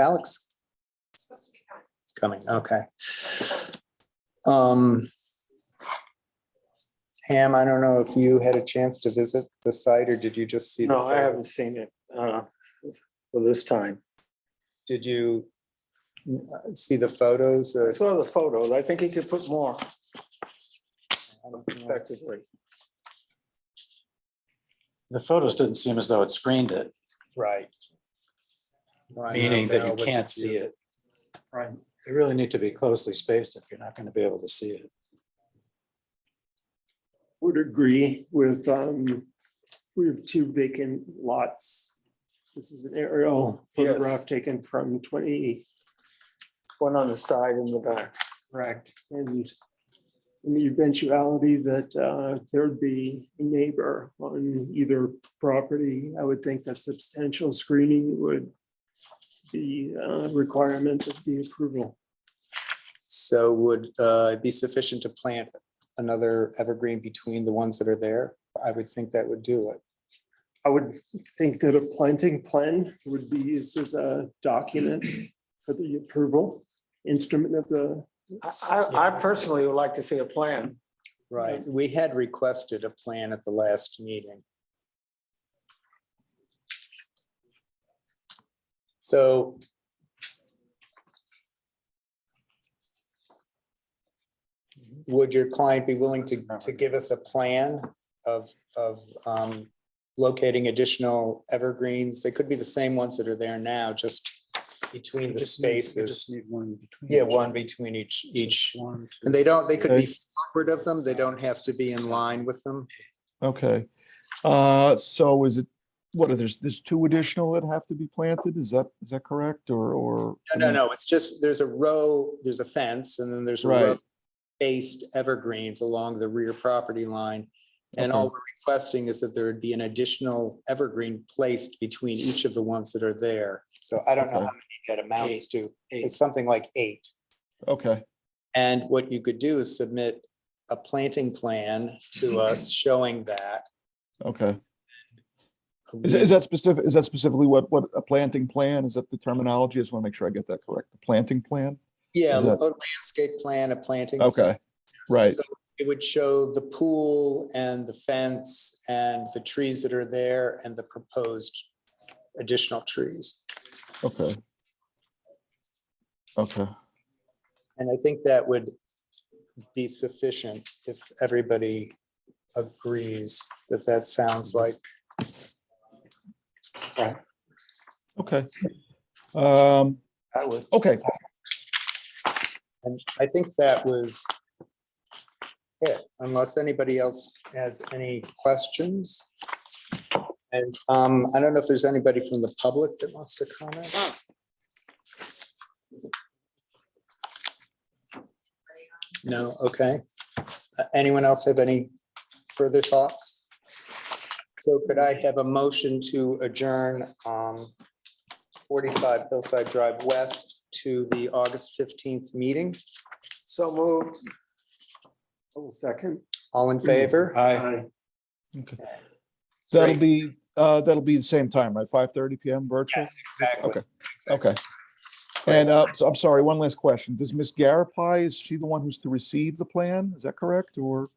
Alex supposed to be coming. coming, okay. Um. Ham, I don't know if you had a chance to visit the site or did you just see? the No, I photo? haven't seen it uh, for this time. Did you uh, see the photos I or? saw the photos. I think he could put more effectively. The photos didn't seem as though it screened it, Right. Well, I don't meaning that know you what can't see it. Right. They really need to be closely spaced if you're not going to be able to see it. would agree with, um, we have two vacant lots. This is an aerial photograph Yes. taken from twenty, One on the side and the back. correct, and in the eventuality that, uh, there'd be a neighbor on either property, I would think that substantial screening would be a requirement of the approval. So would uh, it be sufficient to plant another evergreen between the ones that are there? I would think that would do it. I would think that a planting plan would be used as a document for the approval, instrument of the I- I, I personally would like to see a plan. Right, we had requested a plan at the last meeting. So. Would your client be willing to, to give us a plan of, of um, locating additional evergreens? They could be the same ones that are there now, just between the spaces. Yeah, one between each, each. One. And they don't, they could be forward of them. They don't have to be in line with them. Okay, uh, so is it, what are there's, there's two additional that have to be planted? Is that, is that correct or, or? I No, no, mean, no. It's just, there's a row, there's a fence and then there's a Right. row based evergreens along the rear property line. And Okay. all we're requesting is that there would be an additional evergreen placed between each of the ones that are there. So I don't know how Okay. many that amounts to. It's something like eight. Okay, And what you could do is submit a planting plan to us showing that. okay. Is, is that specific, is that specifically what, what a planting plan? Is that the terminology? I just want to make sure I get that correct. The planting plan? Yeah, is that- a landscape plan, a planting. Okay, right. So It would show the pool and the fence and the trees that are there and the proposed additional trees. okay. Okay, And I think that would be sufficient if everybody agrees that that sounds like. okay. Um, I would. okay, And I think that was it, unless anybody else has any questions. And um, I don't know if there's anybody from the public that wants to comment. No, okay. Uh, Anyone else have any further thoughts? So could I have a motion to adjourn um, 45 Hillside Drive West to the August 15th meeting? So moved. Hold a second. All in favor? Uh, Aye. that'll be, uh, that'll be the same time, right? Five thirty PM virtual? Yes, exactly. exactly. Okay. And uh, so I'm sorry, one last question. Does Ms. Garapai, is she the one who's to receive the plan? Is that correct? Or,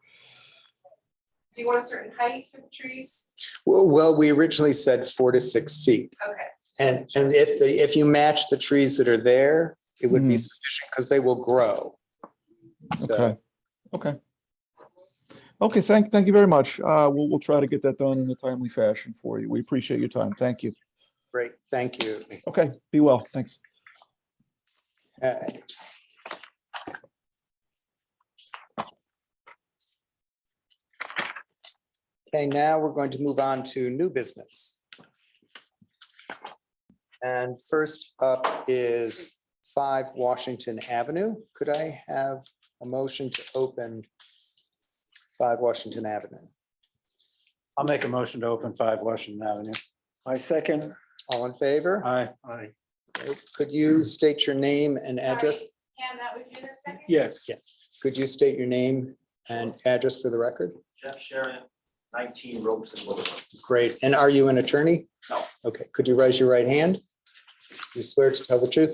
Do you want a certain height for the trees? Well, well, we originally said four to six feet. Okay, And, and if, the if you match the trees that are there, it would be Mhm. sufficient because they will grow. So, okay, okay. Okay, thank, thank you very much. Uh, We'll, we'll try to get that done in a timely fashion for you. We appreciate your time. Thank you. great, thank you. Okay, be well. Thanks. Uh, Okay, now we're going to move on to new business. And first up is five Washington Avenue. Could I have a motion to open five Washington Avenue? I'll make a motion to open five Washington Avenue. My second. All in favor? Aye. Aye. Could you state your name and address? sorry, Pam, that was you that second? Yes. Could you state your name and address for the record? Jeff Sharon, nineteen Robeson Boulevard. Great. And are you an attorney? No. Okay, could you raise your right hand? You swear to tell the truth,